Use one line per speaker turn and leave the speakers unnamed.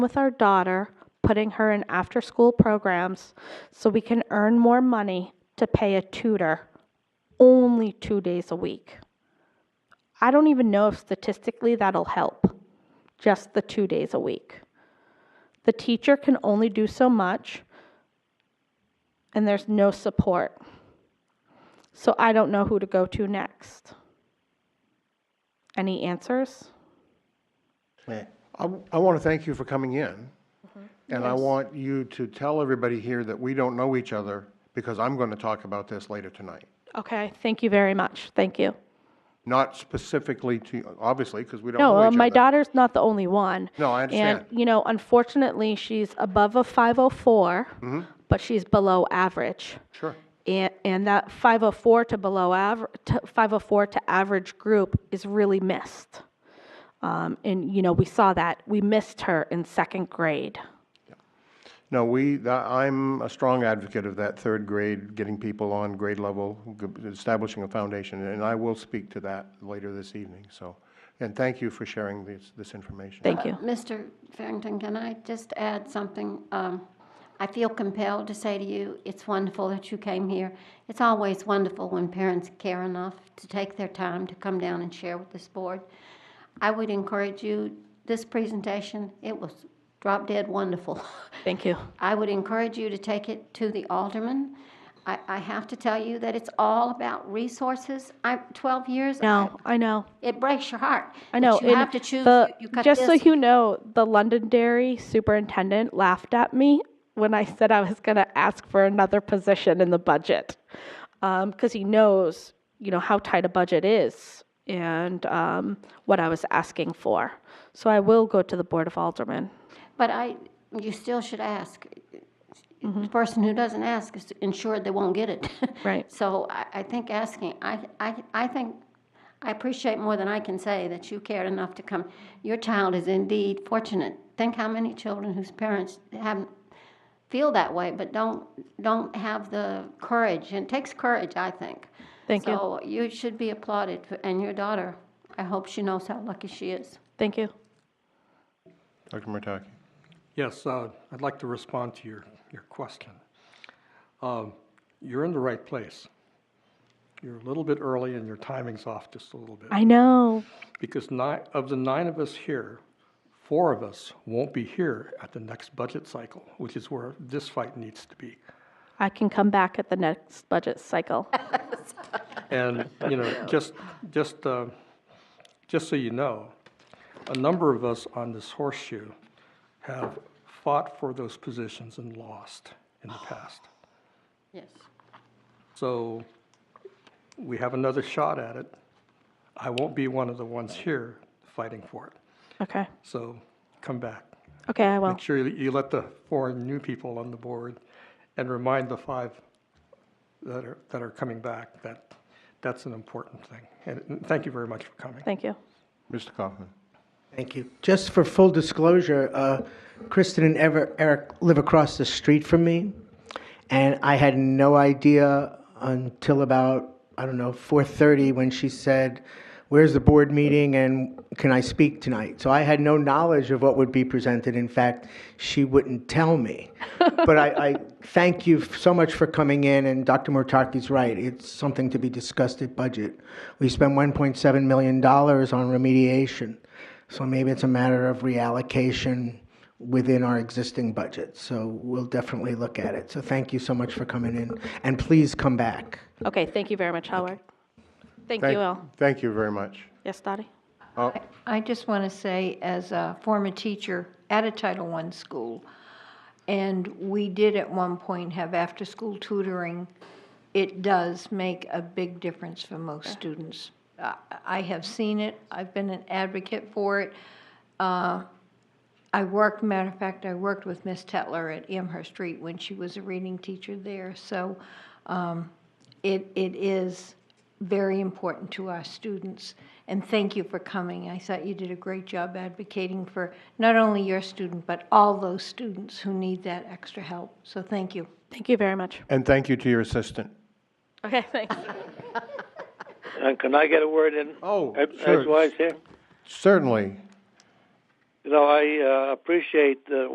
with our daughter, putting her in after-school programs so we can earn more money to pay a tutor only two days a week. I don't even know if statistically that'll help, just the two days a week. The teacher can only do so much, and there's no support. So I don't know who to go to next. Any answers?
I, want to thank you for coming in. And I want you to tell everybody here that we don't know each other because I'm going to talk about this later tonight.
Okay, thank you very much. Thank you.
Not specifically to, obviously, because we don't
No,
know each
uh,
other.
my daughter's not the only one.
No, I understand.
And, you know, unfortunately, she's above a
Mm-hmm.
504, but she's below average.
Sure.
And, and that 504 to below average, 504 to average group is really missed. Um, and, you know, we saw that. We missed her in second grade.
No, we, th- I'm a strong advocate of that third grade, getting people on grade level, g- establishing a foundation, and I will speak to that later this evening, so. And thank you for sharing this, this information.
Thank you.
Mr. Farrington, can I just add something? Um, I feel compelled to say to you, it's wonderful that you came here. It's always wonderful when parents care enough to take their time to come down and share with this board. I would encourage you, this presentation, it was drop dead wonderful.
Thank you.
I would encourage you to take it to the alderman. I, I have to tell you that it's all about resources. I, 12 years,
No, I know.
it breaks your heart.
I know.
But you
and
have to choose,
the-
you cut this.
just so you know, the Londonderry superintendent laughed at me when I said I was going to ask for another position in the budget because he knows, you know, how tight a budget is and um, what I was asking for. So I will go to the Board of Aldermen.
But I, you still should ask.
Mm-hmm.
The person who doesn't ask is insured they won't get it.
Right.
So I, I think asking, I, I, I think, I appreciate more than I can say that you cared enough to come. Your child is indeed fortunate. Think how many children whose parents haven't, feel that way, but don't, don't have the courage. And it takes courage, I think.
Thank you.
So you should be applauded, for- and your daughter, I hope she knows how lucky she is.
Thank you.
Dr. Murtaki?
Yes, uh, I'd like to respond to your, your question. Um, You're in the right place. You're a little bit early and your timing's off just a little bit.
I know.
Because nine, of the nine of us here, four of us won't be here at the next budget cycle, which is where this fight needs to be.
I can come back at the next budget cycle.
And, you know, just, just, uh, just so you know, a number of us on this horseshoe have fought for those positions and lost in the past.
Yes.
So we have another shot at it. I won't be one of the ones here fighting for it.
Okay.
So come back.
Okay, I will.
Make sure that you let the four new people on the board and remind the five that are, that are coming back that that's an important thing. And- And thank you very much for coming.
Thank you.
Mr. Kaufman?
Thank you. Just for full disclosure, uh, Kristen and Ever- Eric live across the street from me, and I had no idea until about I don't know 4:30 when she said, "Where's the board meeting and can I speak tonight?" So I had no knowledge of what would be presented. In fact, she wouldn't tell me. but I, I thank you so much for coming in. And Dr. Murtaki's right; it's something to be discussed at budget. We spent 1.7 million dollars on remediation. So maybe it's a matter of reallocation within our existing budget. So we'll definitely look at it. So thank you so much for coming in, and please come back.
Okay, thank you very much, Howard. Thank
Thank-
you all.
Thank you very much.
Yes, Dottie?
Oh,
I just want to say, as a former teacher at a Title I school, and we did at one point have after-school tutoring, it does make a big difference for most students. I- I have seen it, I've been an advocate for it. Uh, I worked, matter of fact, I worked with Miss Tetler at Amherst Street when she was a reading teacher there, so um, it, it is very important to our students. And thank you for coming. I thought you did a great job advocating for not only your student, but all those students who need that extra help. So thank you.
Thank you very much.
And thank you to your assistant.
Okay, thanks.
And can I get a word in?
Oh,
Ed-
sure.
Edgewise here?
Certainly.
You know, I uh, appreciate uh,